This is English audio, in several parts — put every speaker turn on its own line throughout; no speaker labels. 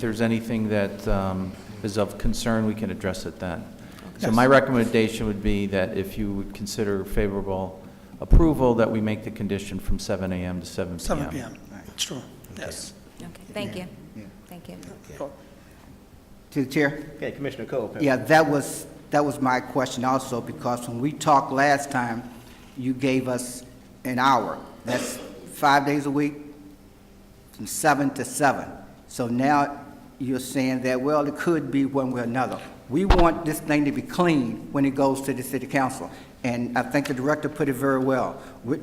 there's anything that um, is of concern, we can address it then. So
Yes.
my recommendation would be that if you would consider favorable approval, that we make the condition from 7 AM to 7 PM.
7 PM, it's true, yes.
Okay, thank you.
Yeah.
Thank you.
To the chair?
Okay, Commissioner Cole.
Yeah, that was, that was my question also, because when we talked last time, you gave us an hour. That's five days a week, from seven to seven. So now you're saying that, well, it could be one way or another. We want this thing to be clean when it goes to the city council. And I think the director put it very well. We-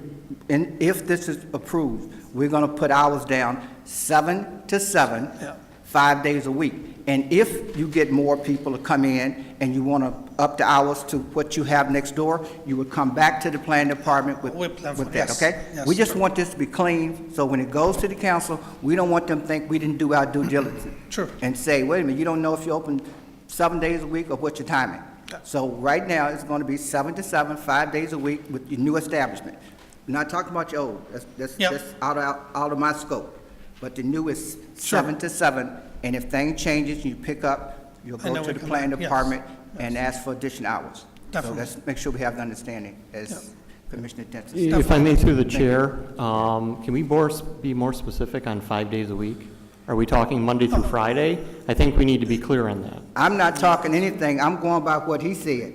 And if this is approved, we're going to put hours down, seven to seven,
Yeah.
five days a week. And if you get more people to come in and you want to up the hours to what you have next door, you would come back to the planning department with
We plan for-
with that,
yes,
okay?
yes.
We just want this to be clean, so when it goes to the council, we don't want them to think we didn't do our due diligence.
True.
And say, wait a minute, you don't know if you open seven days a week or what your timing.
Yeah.
So right now, it's going to be seven to seven, five days a week with your new establishment. We're Not talking about your old, that's, that's,
Yeah.
that's out of, out of my scope. But the new is
Sure.
seven to seven, and if thing changes, you pick up, you'll
And
go
then
to
we
the
come
planning
back, yes,
department and ask for additional hours.
Definitely.
So let's make sure we have the understanding, as Commissioner Denson said.
If I may, through the chair, um, can we more s- be more specific on five days a week? Are we talking Monday through Friday? I think we need to be clear on that.
I'm not talking anything, I'm going by what he said.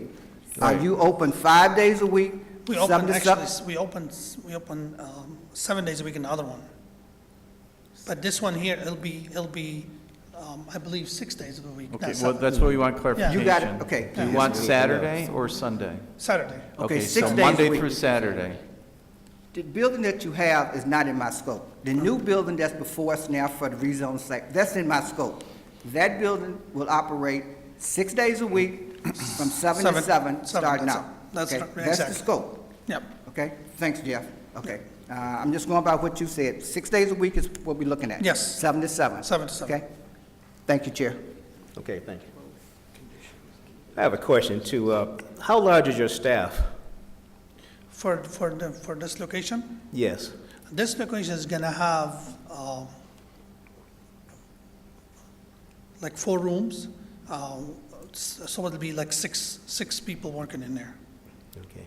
Are you open five days a week?
We
seven
open,
to
actually,
seven?
s- we open, s- we open um, seven days a week in the other one. But this one here, it'll be, it'll be, um, I believe, six days of a week,
Okay,
not
well,
seven.
that's what we want clarification.
You
got it, okay.
Do you want Saturday or Sunday?
Saturday.
Okay,
so
six days a
Monday
week.
through Saturday.
The building that you have is not in my scope. The new building that's before us now for the rezone site, that's in my scope. That building will operate six days a week from seven to
Seven-
seven,
seven,
starting
that's
out.
it. That's
Okay,
right,
That's the
exactly.
scope.
Yep,
Okay, thanks, Jeff. Okay, Uh, I'm just going by what you said. Six days a week is what we're looking at.
Yes.
Seven to seven.
Seven to seven.
Okay? Thank you, Chair.
Okay, thank you. I have a question too. Uh, How large is your staff?
for, for, the- for this location.
Yes.
This location is gonna have, um, like four rooms, um, s- so it'll be like six, six people working in there.
Okay.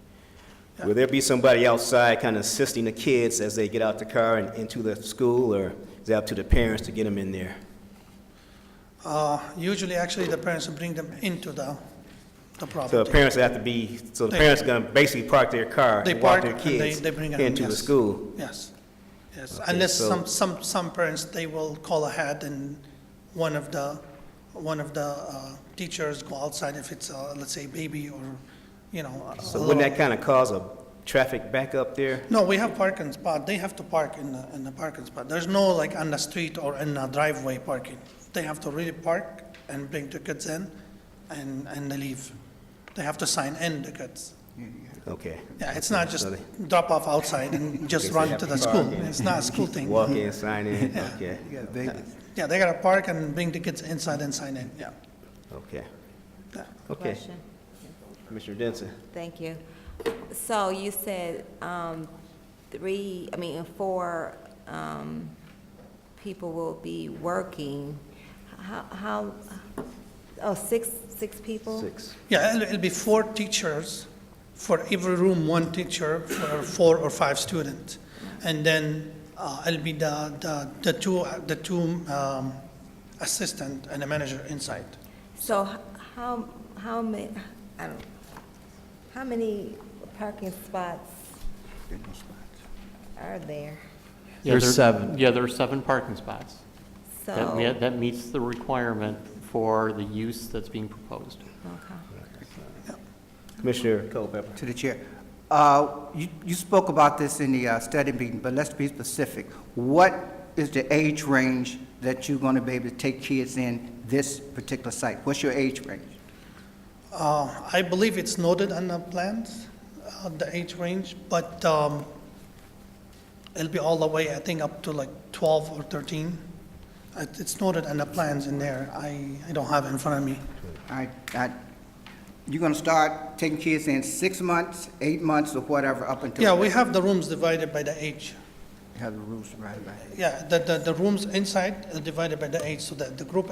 Will there be somebody outside kind of assisting the kids as they get out the car and into the school, or is it up to the parents to get them in there?
Uh, Usually, actually, the parents will bring them into the, the
So the
property.
parents have to be, so the
They-
parents gonna basically park their car
They
and walk
park
their
and they,
kids
they bring them in,
into the
yes.
school?
Yes, yes, unless
so-
some, some, some parents, they will call ahead and one of the, one of the uh, teachers go outside if it's, uh, let's say, baby or, you know. a-
So
a little-
wouldn't that kind of cause a traffic backup there?
No, we have parking spot, they have to park in the, in the parking spot. There's no like on the street or in the driveway parking. They have to really park and bring the kids in and, and they leave. They have to sign in the kids.
Okay.
Yeah, it's not just
So they
drop off outside and just
they
run
have
to
to
the
park
school.
and-
It's not a school thing.
Walk in, sign in, okay, Uh,
Yeah, they gotta park and bring the kids inside and sign in, yeah.
okay,
yeah.
okay.
Question.
Commissioner Denson?
Thank you. So you said, um, three, I mean, four, um, people will be working. How, how, oh, six, six people?
Six.
Yeah, it'll, it'll be four teachers, for every room, one teacher for four or five students. And then, uh, it'll be the, the, the two, the two, um, assistant and a manager inside.
So h- how, how ma, I don't, how many parking spots are there?
Yeah,
There's
there-
seven.
Yeah, there are seven parking spots. That
So,
me- that meets the requirement for the use that's being proposed.
okay.
Commissioner Culpepper?
To the chair. Uh, You you spoke about this in the uh, study meeting, but let's be specific. What is the age range that you're going to be able to take kids in this particular site? What's your age range?
Uh, I believe it's noted on the plans, uh, the age range, but, um, it'll be all the way, I think, up to like twelve or thirteen. It- It's noted on the plans in there. I, I don't have it in front of me.
I, I, you're gonna start taking kids in six months, eight months, or whatever, up until.
Yeah, we have the rooms divided by the age.
Have the rules right about it.
Yeah, the, the, the rooms inside are divided by the age, so that the group